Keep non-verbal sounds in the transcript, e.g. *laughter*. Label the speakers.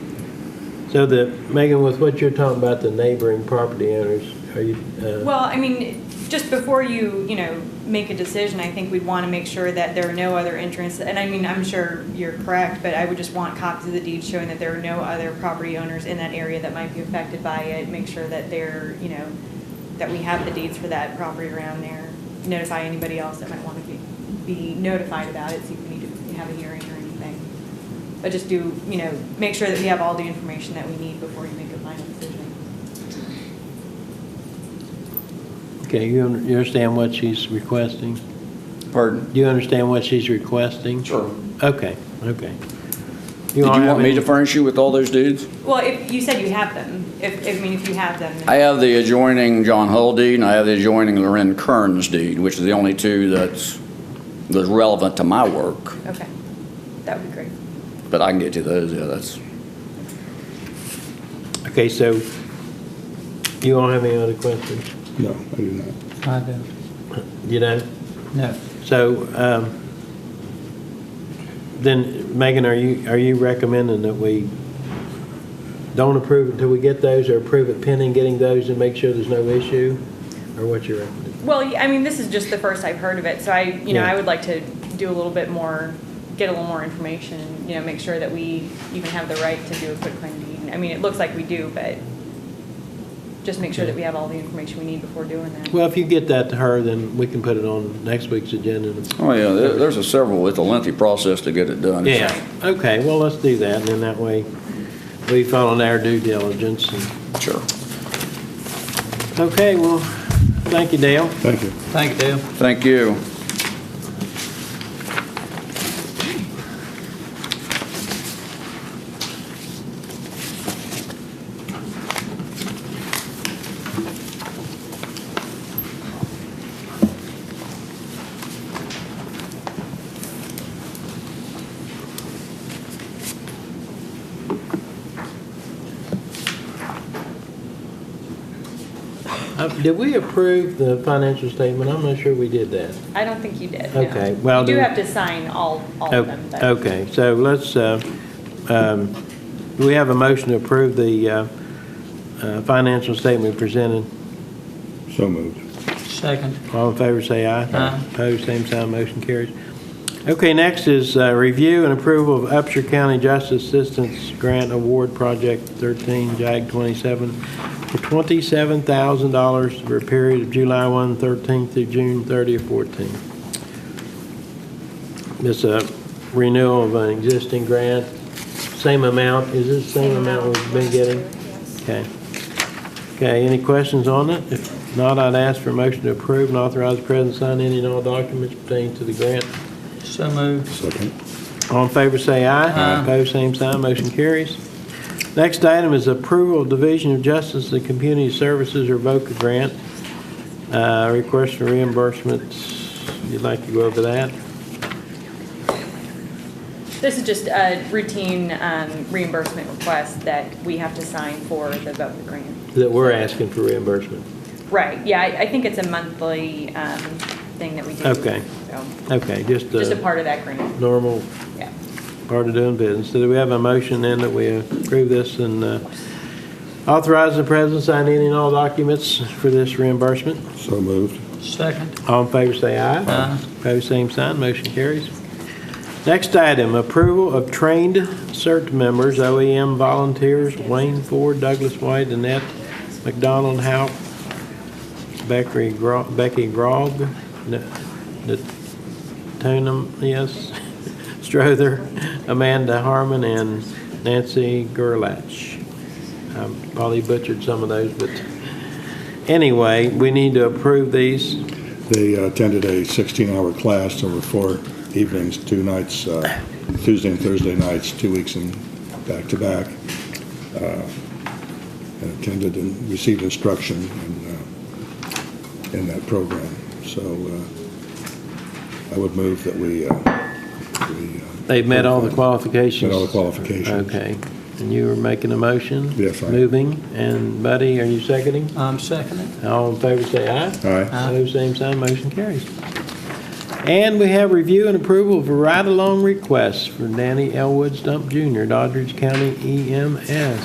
Speaker 1: So the, Megan, with what you're talking about, the neighboring property owners, are you, uh,
Speaker 2: Well, I mean, just before you, you know, make a decision, I think we'd want to make sure that there are no other entrants. And I mean, I'm sure you're correct, but I would just want copies of the deed showing that there are no other property owners in that area that might be affected by it. Make sure that they're, you know, that we have the deeds for that property around there. Notify anybody else that might want to be, be notified about it, see if we need to have a hearing or anything. But just do, you know, make sure that we have all the information that we need before you make a final decision.
Speaker 1: okay, you un- you understand what she's requesting?
Speaker 3: Pardon?
Speaker 1: Do you understand what she's requesting?
Speaker 3: Sure.
Speaker 1: Okay, okay.
Speaker 3: Did you
Speaker 1: all have
Speaker 3: want me
Speaker 1: any-
Speaker 3: to furnish you with all those dudes?
Speaker 2: Well, if, you said you have them, if, if- I mean, if you have them. then-
Speaker 3: I have the adjoining John Hull deed, and I have the adjoining Loren Kearns deed, which is the only two that's, that's relevant to my work.
Speaker 2: Okay, that would be great.
Speaker 3: But I can get you those, yeah, that's,
Speaker 1: Okay, so you all have any other questions?
Speaker 4: No, I do not.
Speaker 5: I do.
Speaker 1: You know?
Speaker 5: No.
Speaker 1: So, um, then, Megan, are you, are you recommending that we don't approve until we get those, or approve it pending getting those and make sure there's no issue? Or what's your recommendation?
Speaker 2: Well, yeah, I mean, this is just the first I've heard of it, so I, you know,
Speaker 1: Yeah.
Speaker 2: I would like to do a little bit more, get a little more information, and, you know, make sure that we even have the right to do a quick claim deed. I mean, it looks like we do, but just make sure that we have all the information we need before doing that.
Speaker 1: Well, if you get that to her, then we can put it on next week's agenda.
Speaker 3: oh, yeah, there- there's a several, it's a lengthy process to get it done.
Speaker 1: Yeah, okay, well, let's do that, and then that way, we follow our due diligence. and-
Speaker 3: Sure.
Speaker 1: Okay, well, thank you, Dale.
Speaker 4: Thank you.
Speaker 5: Thank you, Dale.
Speaker 3: Thank you.
Speaker 1: Uh, Did we approve the financial statement? I'm not sure we did that.
Speaker 2: I don't think you did, no.
Speaker 1: Okay, well,
Speaker 2: You do
Speaker 1: then- Oh,
Speaker 2: have to sign all, all of them, but.
Speaker 1: Okay, so let's, uh, um, do we have a motion to approve the uh, uh, financial statement presented.
Speaker 4: So moved.
Speaker 5: Second.
Speaker 1: All in favor, say aye.
Speaker 5: Aye.
Speaker 1: Opposed, same sign, motion carries. Okay, next is uh, review and approval of Upshur County Justice Assistance Grant Award Project 13, JAG 27, for $27,000 for a period of July 1, 13 through June 30 of 14. This uh, renewal of an existing grant, same amount, is this the same amount we've been getting? Okay. Okay, any questions on it? If not, I'd ask for a motion to approve and authorize the president to sign any and all documents pertaining to the grant.
Speaker 5: So moved.
Speaker 4: Second.
Speaker 1: All in favor, say aye.
Speaker 5: Aye.
Speaker 1: Opposed, same sign, motion carries. Next item is approval of Division of Justice and Community Services or VOCA grant. Uh, Request for reimbursements, you'd like to go over that?
Speaker 2: This is just a routine um, reimbursement request that we have to sign for the VOCA grant.
Speaker 1: That we're asking for reimbursement.
Speaker 2: Right, yeah, I, I think it's a monthly, um, thing that we do.
Speaker 1: Okay.
Speaker 2: So,
Speaker 1: Okay, just uh,
Speaker 2: Just a
Speaker 1: a
Speaker 2: part of that grant,
Speaker 1: normal
Speaker 2: yeah.
Speaker 1: part of doing business. So do we have a motion then that we approve this and uh, authorize the president to sign any and all documents for this reimbursement?
Speaker 4: So moved.
Speaker 5: Second.
Speaker 1: All in favor, say aye.
Speaker 5: Aye.
Speaker 1: Pose same sign, motion carries. Next item, approval of trained CERT members, OEM volunteers, Wayne Ford, Douglas White, Annette McDonald, Houck, Becky Gro- Becky Grog, N- Natunam, yes, *laughs* Strother, Amanda Harmon, and Nancy Gerlach. I probably butchered some of those, but anyway, we need to approve these.
Speaker 4: They uh, attended a 16-hour class over four evenings, two nights, uh, Tuesday and Thursday nights, two weeks in back-to-back, uh, and attended and received instruction in, uh, in that program. So uh, I would move that we, uh, we. uh,
Speaker 1: They've met all the qualifications?
Speaker 4: Met all the qualifications.
Speaker 1: Okay. And you were making a motion?
Speaker 4: Yes, I am.
Speaker 1: Moving, and Buddy, are you seconding?
Speaker 5: I'm seconding.
Speaker 1: All in favor, say aye.
Speaker 4: Aye.
Speaker 1: Those same sign, motion carries. And we have review and approval of a E ride-along request for Danny Elwood Stump Jr., Doddridge County EMS.